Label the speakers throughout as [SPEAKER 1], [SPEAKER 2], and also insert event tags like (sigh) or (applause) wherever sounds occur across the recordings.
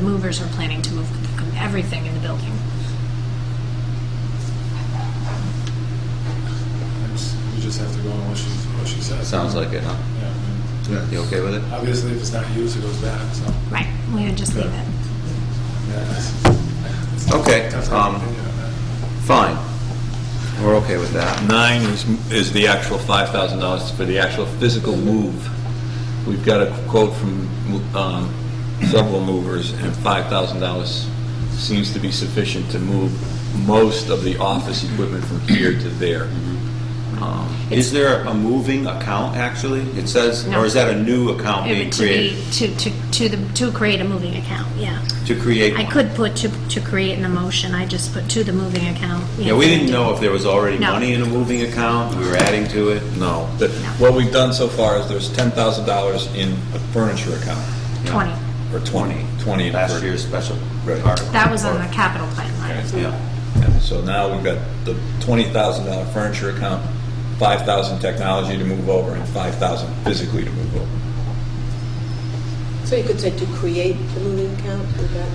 [SPEAKER 1] movers are planning to move everything in the building.
[SPEAKER 2] It's- You just have to go on what she, what she says.
[SPEAKER 3] Sounds like it, huh?
[SPEAKER 2] Yeah, I mean,
[SPEAKER 3] You okay with it?
[SPEAKER 2] Obviously, if it's not used, it goes back, so.
[SPEAKER 1] Right, we would just leave it.
[SPEAKER 2] yeah, it's-
[SPEAKER 3] Okay,
[SPEAKER 2] That's
[SPEAKER 3] um,
[SPEAKER 2] my opinion on that.
[SPEAKER 3] Fine. We're okay with that.
[SPEAKER 4] Nine is, is the actual $5,000 for the actual physical move. We've got a quote from um, several movers, and $5,000 seems to be sufficient to move most of the office equipment from here to there. Um,
[SPEAKER 3] Is there a moving account, actually? It says,
[SPEAKER 1] No.
[SPEAKER 3] or is that a new account
[SPEAKER 1] It
[SPEAKER 3] being
[SPEAKER 1] would to be,
[SPEAKER 3] created?
[SPEAKER 1] to, to, to the, to create a moving account, yeah.
[SPEAKER 3] To create
[SPEAKER 1] I
[SPEAKER 3] one?
[SPEAKER 1] could put to, to create in the motion, I just put to the moving account.
[SPEAKER 3] Yeah, we didn't know if there was already
[SPEAKER 1] No.
[SPEAKER 3] money in a moving account, we were adding to it.
[SPEAKER 4] No, The- what we've done so far is there's $10,000 in a furniture account,
[SPEAKER 1] Twenty,
[SPEAKER 4] or 20, 20 in a
[SPEAKER 3] Last
[SPEAKER 4] furniture.
[SPEAKER 3] year's special
[SPEAKER 4] Right.
[SPEAKER 3] article.
[SPEAKER 1] that was on the capital plan line.
[SPEAKER 4] Okay.
[SPEAKER 3] Yeah.
[SPEAKER 4] Yeah, So now we've got the twenty thousand dollar furniture account, five thousand technology to move over, and five thousand physically to move over.
[SPEAKER 5] So you could say to create the moving account, would that?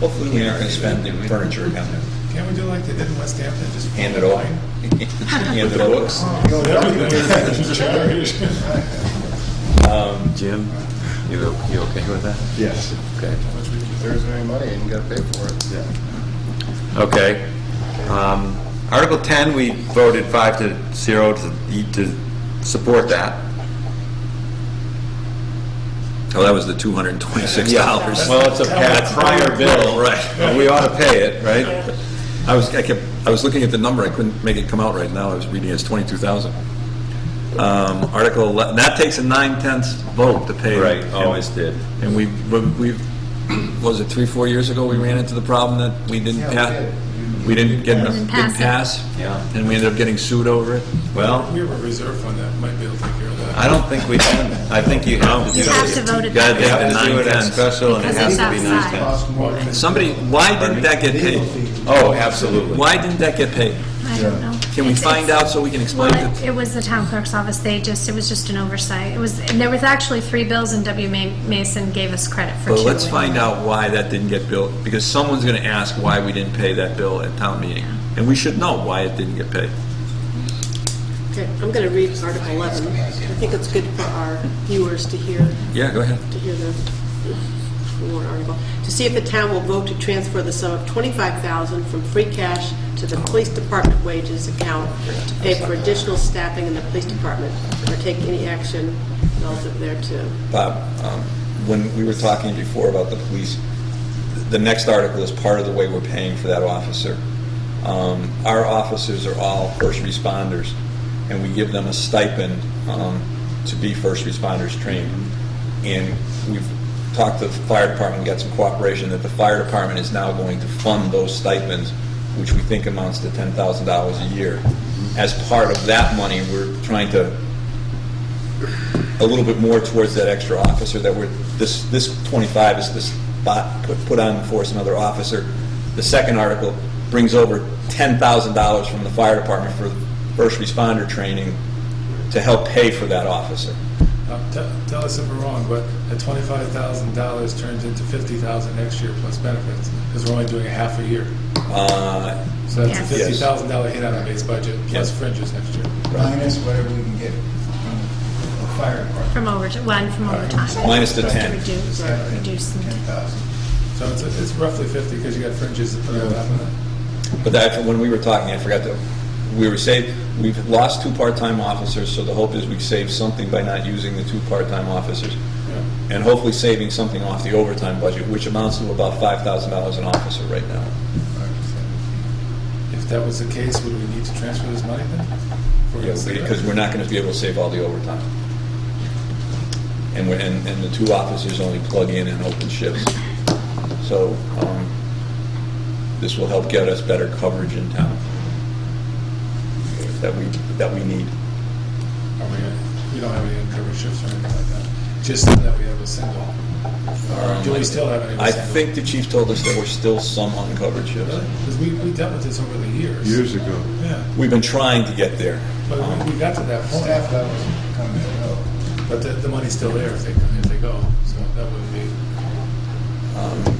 [SPEAKER 4] Hopefully, we aren't gonna spend the furniture account and
[SPEAKER 2] Can't we do like they did in West Hampton, just?
[SPEAKER 4] hand it over.
[SPEAKER 2] (laughs) line?
[SPEAKER 4] (laughs) Hand it over.
[SPEAKER 2] Everything.
[SPEAKER 3] Jim, you, you okay with that?
[SPEAKER 6] Yes.
[SPEAKER 3] Okay.
[SPEAKER 6] There's any money and you gotta pay for it. Yeah.
[SPEAKER 3] Okay. Um, Article 10, we voted five to zero to, to support that.
[SPEAKER 4] Oh, that was the two hundred and twenty-six (laughs) dollars.
[SPEAKER 3] Well, it's a pa- prior bill.
[SPEAKER 4] Right.
[SPEAKER 3] Well, We ought to pay it, right?
[SPEAKER 4] I was, I kept, I was looking at the number, I couldn't make it come out right now, I was reading it's twenty-two thousand. Um, Article eleven, that takes a nine-tenths vote to pay.
[SPEAKER 3] did.
[SPEAKER 4] And we, but we've, was it three, four years ago, we ran into the problem that we didn't
[SPEAKER 6] Yeah, we
[SPEAKER 4] pass?
[SPEAKER 6] did.
[SPEAKER 4] We didn't get,
[SPEAKER 1] Didn't
[SPEAKER 4] didn't
[SPEAKER 1] pass it.
[SPEAKER 4] pass?
[SPEAKER 3] Yeah.
[SPEAKER 4] And we ended up getting sued over it?
[SPEAKER 3] Well,
[SPEAKER 2] We have a reserve fund that might be able to take care of that.
[SPEAKER 3] I don't think we can. I think you have to do
[SPEAKER 1] You
[SPEAKER 3] it.
[SPEAKER 1] have to vote it
[SPEAKER 3] You
[SPEAKER 1] down.
[SPEAKER 3] have to do it as
[SPEAKER 4] Nine-tenths.
[SPEAKER 3] special, and it has
[SPEAKER 1] Because
[SPEAKER 3] to be
[SPEAKER 1] it's
[SPEAKER 3] nine
[SPEAKER 1] outside.
[SPEAKER 3] tenths.
[SPEAKER 4] Somebody, why didn't that get paid?
[SPEAKER 3] Oh, absolutely.
[SPEAKER 4] Why didn't that get paid?
[SPEAKER 1] I don't know.
[SPEAKER 4] Can we
[SPEAKER 1] It's-
[SPEAKER 4] find
[SPEAKER 1] it's-
[SPEAKER 4] out so we can explain
[SPEAKER 1] Well, it-
[SPEAKER 4] it?
[SPEAKER 1] it was the town clerk's office, they just, it was just an oversight. It was, and there was actually three bills and W. Ma- Mason gave us credit for two.
[SPEAKER 4] But let's find out why that didn't get billed, because someone's gonna ask why we didn't pay that bill at town meeting. And we should know why it didn't get paid.
[SPEAKER 5] Okay, I'm going to read Article 11. I think it's good for our viewers to hear,
[SPEAKER 4] Yeah, go ahead.
[SPEAKER 5] to hear the the warrant article. To see if the town will vote to transfer the sum of 25000 from free cash to the police department wages account to pay for additional staffing in the police department, or take any action relative thereto.
[SPEAKER 4] Bob, um, when we were talking before about the police, the next article is part of the way we're paying for that officer. Um, Our officers are all first responders, and we give them a stipend um, to be first responders trained. And we've talked to the fire department, got some cooperation, that the fire department is now going to fund those stipends, which we think amounts to $10,000 a year. As part of that money, we're trying to a little bit more towards that extra officer that we're, this, this 25 is the spot put, put on for us another officer. The second article brings over $10,000 from the fire department for first responder training to help pay for that officer.
[SPEAKER 2] Now, Uh, te- Tell us if we're wrong, but that twenty-five thousand dollars turns into fifty thousand next year plus benefits, because we're only doing a half a year.
[SPEAKER 4] Uh,
[SPEAKER 2] So that's a
[SPEAKER 1] Yes.
[SPEAKER 2] fifty thousand dollar hit on the base budget, plus
[SPEAKER 4] Yeah.
[SPEAKER 2] fringes next year.
[SPEAKER 6] Minus whatever we can get from the fire department.
[SPEAKER 1] From overtime, one from overtime.
[SPEAKER 4] Minus the
[SPEAKER 1] Just to
[SPEAKER 4] 10.
[SPEAKER 1] Reduce, reduce.
[SPEAKER 6] Ten thousand.
[SPEAKER 2] So it's, it's roughly fifty, because you got fringes to put on top of that.
[SPEAKER 4] But that, when we were talking, I forgot to, we were saved, we've lost two part-time officers, so the hope is we save something by not using the two part-time officers. And hopefully saving something off the overtime budget, which amounts to about $5,000 an officer right now.
[SPEAKER 2] If that was the case, would we need to transfer this money then? For
[SPEAKER 4] Yeah,
[SPEAKER 2] this-
[SPEAKER 4] because we're not going to be able to save all the overtime. And we're, and, and the two officers only plug in and open shifts. So, um, this will help get us better coverage in town that we, that we need.
[SPEAKER 2] Are we, we don't have any uncovered shifts or anything like that, just that we have a single. Or Uh, do we still have any?
[SPEAKER 4] Um, I think the chief told us there were still some uncovered shifts.
[SPEAKER 2] Because we, we dealt with this over the years.
[SPEAKER 7] years ago.
[SPEAKER 2] Yeah,
[SPEAKER 4] We've been trying to get there.
[SPEAKER 2] but
[SPEAKER 4] Um,
[SPEAKER 2] we- we got to that
[SPEAKER 6] Staff
[SPEAKER 2] point,
[SPEAKER 6] levels come and go.
[SPEAKER 2] but the, the money's still there if they, if they go, so that would be.
[SPEAKER 4] Um,